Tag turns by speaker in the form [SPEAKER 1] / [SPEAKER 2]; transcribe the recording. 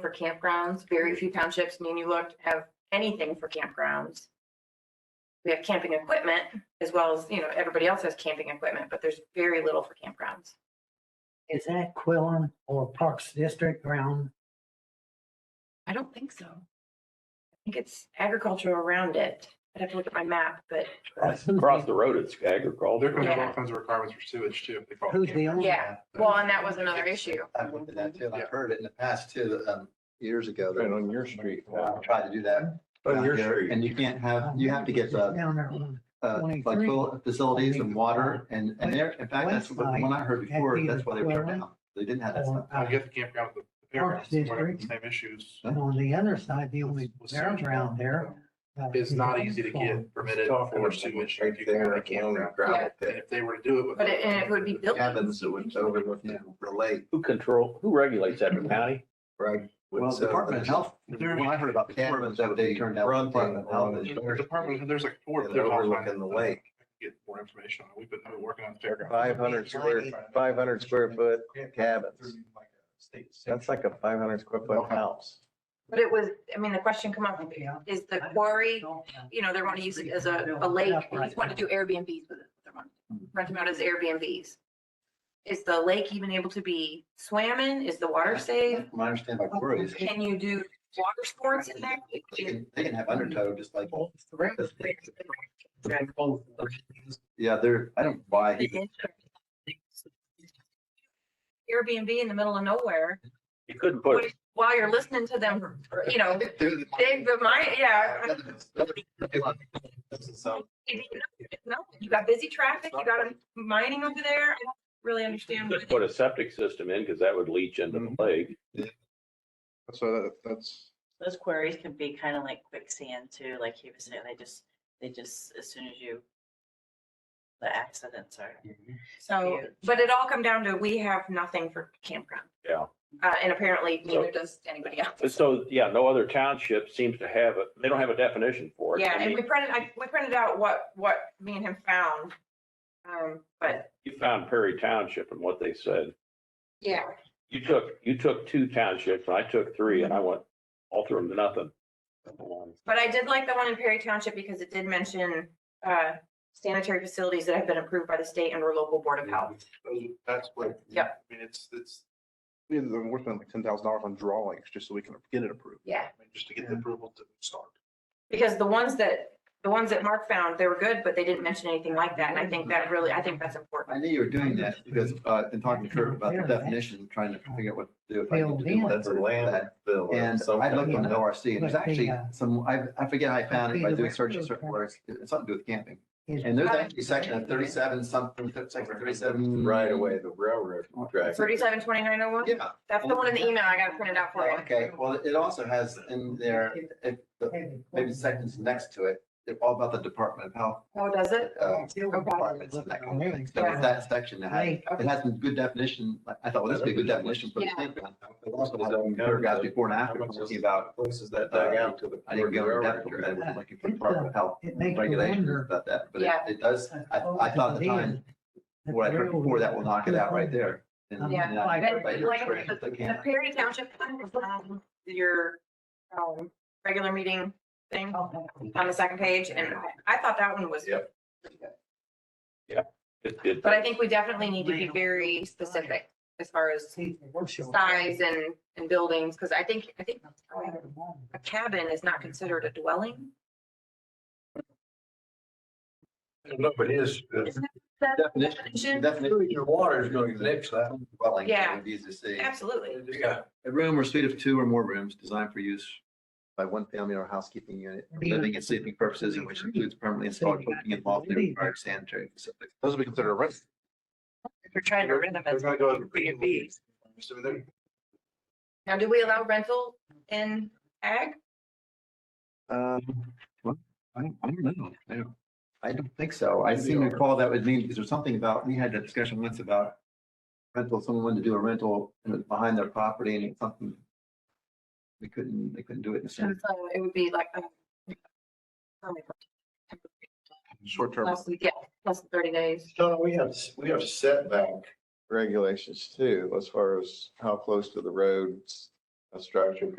[SPEAKER 1] for campgrounds. Very few townships, me and you looked, have anything for campgrounds. We have camping equipment as well as, you know, everybody else has camping equipment, but there's very little for campgrounds.
[SPEAKER 2] Is that Quillen or Parks District ground?
[SPEAKER 1] I don't think so. I think it's agriculture around it. I'd have to look at my map, but
[SPEAKER 3] Across the road, it's
[SPEAKER 4] They're
[SPEAKER 3] agriculture.
[SPEAKER 4] gonna have
[SPEAKER 1] Yeah.
[SPEAKER 4] all kinds of requirements for sewage too. if they call it
[SPEAKER 2] Who's the
[SPEAKER 4] campground.
[SPEAKER 2] owner?
[SPEAKER 1] yeah, well, and that was another issue.
[SPEAKER 5] I've looked at that too. and I've heard it in the past too, um, years ago. that
[SPEAKER 3] Right on your street.
[SPEAKER 5] I Tried to do that.
[SPEAKER 3] On your
[SPEAKER 5] out there,
[SPEAKER 3] street.
[SPEAKER 5] And you can't have, you have to get the,
[SPEAKER 2] Down there on
[SPEAKER 5] uh, like
[SPEAKER 2] 23.
[SPEAKER 5] toilet facilities and water and, and there, in fact, that's what the one I heard before. That's why they were turned down. They didn't have that
[SPEAKER 2] or,
[SPEAKER 5] stuff.
[SPEAKER 4] I
[SPEAKER 2] uh,
[SPEAKER 4] get the campground with the fairgrounds, they might have the same issues.
[SPEAKER 2] and on the other side, the only
[SPEAKER 4] with
[SPEAKER 2] ground
[SPEAKER 4] sewage.
[SPEAKER 2] around there. uh,
[SPEAKER 4] It's
[SPEAKER 2] is
[SPEAKER 4] not
[SPEAKER 2] on
[SPEAKER 4] easy to
[SPEAKER 2] farm.
[SPEAKER 4] get permitted
[SPEAKER 3] Talking
[SPEAKER 4] for
[SPEAKER 3] about
[SPEAKER 4] sewage
[SPEAKER 3] right
[SPEAKER 4] if you go
[SPEAKER 3] there,
[SPEAKER 4] to a
[SPEAKER 3] the only
[SPEAKER 4] campground.
[SPEAKER 1] Yeah.
[SPEAKER 3] gravel
[SPEAKER 4] And
[SPEAKER 3] pit.
[SPEAKER 4] if they were to do it with.
[SPEAKER 1] But it, and it would be buildings.
[SPEAKER 5] Cabins that would over with you know, relate,
[SPEAKER 3] Who control, who regulates that, the county?
[SPEAKER 5] right?
[SPEAKER 3] Would-
[SPEAKER 5] Well,
[SPEAKER 3] so- uh,
[SPEAKER 5] Department of Health,
[SPEAKER 4] There-
[SPEAKER 5] when I heard about the cameras that they turned down.
[SPEAKER 3] Run
[SPEAKER 5] Department of Health
[SPEAKER 3] thing.
[SPEAKER 5] is-
[SPEAKER 4] The Department, there's like four.
[SPEAKER 5] Yeah,
[SPEAKER 4] there's all
[SPEAKER 5] overlooking
[SPEAKER 4] kinds of
[SPEAKER 5] the
[SPEAKER 4] stuff.
[SPEAKER 5] lake.
[SPEAKER 4] I could Get more information on it. We've been we're working on the fairgrounds.
[SPEAKER 6] Five hundred square, five hundred square foot cabins. That's like a five hundred square foot house.
[SPEAKER 1] But it was, I mean, the question come up,
[SPEAKER 2] Yeah.
[SPEAKER 1] is the quarry,
[SPEAKER 2] Don't have-
[SPEAKER 1] you know, they want to use it as a, a lake. They just want to do Airbnbs with it. They want to Rent them out as Airbnbs. Is the lake even able to be swam in? Is the water safe?
[SPEAKER 5] From my understanding, by quarries, they
[SPEAKER 1] Can you do water sports in there?
[SPEAKER 5] can, they can have undertow just like.
[SPEAKER 2] Correct.
[SPEAKER 5] Yeah, they're, I don't know why. he-
[SPEAKER 1] Airbnb in the middle of nowhere,
[SPEAKER 3] You couldn't put, it-
[SPEAKER 1] while you're listening to them, you know, they, but my, yeah. No, you got busy traffic, you got 'em mining over there. I don't really understand.
[SPEAKER 3] just
[SPEAKER 1] what-
[SPEAKER 3] put a septic system in, because that would leach into
[SPEAKER 4] Mm-hmm.
[SPEAKER 3] the lake.
[SPEAKER 4] So that, that's.
[SPEAKER 7] Those queries can be kind of like quicksand too, like he was saying, they just, they just, as soon as you, the accidents are.
[SPEAKER 1] So, but it all come down to, we have nothing for campground.
[SPEAKER 3] Yeah.
[SPEAKER 1] Uh, and apparently neither does anybody else.
[SPEAKER 3] And so, yeah, no other township seems to have it, they don't have a definition for it.
[SPEAKER 1] Yeah,
[SPEAKER 3] I
[SPEAKER 1] and
[SPEAKER 3] mean,
[SPEAKER 1] we printed, I, we printed out what, what me and him found. Um, but
[SPEAKER 3] You found Perry Township and what they said.
[SPEAKER 1] yeah,
[SPEAKER 3] You took, you took two townships, and I took three, and I
[SPEAKER 1] Mm-hmm.
[SPEAKER 3] went all through them to nothing. Um,
[SPEAKER 1] But I did like the one in Perry Township because it did mention uh, sanitary facilities that have been approved by the state and/or local board of health.
[SPEAKER 4] That's what.
[SPEAKER 1] Yep.
[SPEAKER 4] I mean, it's, it's. We're spending like ten thousand dollars on drawings just so we can get it approved.
[SPEAKER 1] Yeah.
[SPEAKER 4] I mean, Just to get the approval to start.
[SPEAKER 1] Because the ones that, the ones that Mark found, they were good, but they didn't mention anything like that. And I think that really, I think that's important.
[SPEAKER 5] I knew you were doing that because, uh, in talking to Kurt about the definition, trying to figure out what to do. if I need to do
[SPEAKER 6] That's a
[SPEAKER 5] that or that.
[SPEAKER 6] landfill.
[SPEAKER 5] And I looked on the ORC and there's
[SPEAKER 2] But the,
[SPEAKER 5] actually
[SPEAKER 2] uh,
[SPEAKER 5] some, I, I forget how I found it by
[SPEAKER 2] the
[SPEAKER 5] doing
[SPEAKER 2] railroad
[SPEAKER 5] searches certain
[SPEAKER 2] track-
[SPEAKER 5] words. It's something to do with camping.
[SPEAKER 2] is-
[SPEAKER 5] And there's actually section of thirty-seven something, section thirty-seven.
[SPEAKER 6] Right away, the railroad track.
[SPEAKER 1] Thirty-seven twenty-nine oh one,
[SPEAKER 5] Yeah.
[SPEAKER 1] that's the one in the email I got printed out for you.
[SPEAKER 5] Oh, Okay, well, it also has in there, if, the- maybe sections next to it, they're all about the Department of Health.
[SPEAKER 1] Oh, does it?
[SPEAKER 5] uh, departments and that kind of thing. So it's that section that had, it has some good definition, like, I thought, well, this would be a good definition for the
[SPEAKER 1] Yeah.
[SPEAKER 5] campground. It also had some paragraphs before and after talking about,
[SPEAKER 6] Places that dug out to the.
[SPEAKER 5] I didn't go into depth, because
[SPEAKER 6] railroad track.
[SPEAKER 5] I was looking for Department of Health
[SPEAKER 2] It makes me
[SPEAKER 5] regulations
[SPEAKER 2] wonder.
[SPEAKER 5] about that, but it,
[SPEAKER 1] Yeah.
[SPEAKER 5] it does, I, I thought at the time, what I heard before, that will knock it out right there. And-
[SPEAKER 1] Yeah.
[SPEAKER 5] and I-
[SPEAKER 1] But
[SPEAKER 5] but you're
[SPEAKER 1] like
[SPEAKER 5] correct,
[SPEAKER 1] the-
[SPEAKER 5] they
[SPEAKER 1] The
[SPEAKER 5] can't.
[SPEAKER 1] Perry Township, um, your um, regular meeting thing on the second page, and I- I thought that one was
[SPEAKER 5] Yep.
[SPEAKER 3] It- it-
[SPEAKER 1] But I think we definitely need to be very specific as far as size and, and buildings, because I think, I think a cabin is not considered a dwelling.
[SPEAKER 6] No, but his,
[SPEAKER 1] Is that the
[SPEAKER 5] Definition,
[SPEAKER 1] definition?
[SPEAKER 5] definition.
[SPEAKER 6] your water is going to the next side.
[SPEAKER 5] Dwelling,
[SPEAKER 1] Yeah.
[SPEAKER 5] it would be easy to see.
[SPEAKER 1] Absolutely.
[SPEAKER 6] Yeah.
[SPEAKER 5] A room or suite of two or more rooms designed for use by one family or housekeeping unit, for living and sleeping purposes, and which includes permanently installed cooking and lofty required sanitary facilities.
[SPEAKER 4] Those would be considered a rent.
[SPEAKER 7] If you're trying to rent them as
[SPEAKER 4] They're gonna go to-
[SPEAKER 7] Airbnbs.
[SPEAKER 4] So they're-
[SPEAKER 1] Now, do we allow rental in ag?
[SPEAKER 5] Um, well, I don't, I don't know. I don't, I don't think so. I seem to recall that would mean, because there's something about, we had that discussion once about rental, someone wanted to do a rental and it was behind their property and it's something we couldn't, they couldn't do it in the
[SPEAKER 1] So
[SPEAKER 5] center.
[SPEAKER 1] it would be like.
[SPEAKER 4] Short term.
[SPEAKER 1] Plus, yeah, plus thirty days.
[SPEAKER 6] So we have, we have setback regulations too, as far as how close to the roads a structure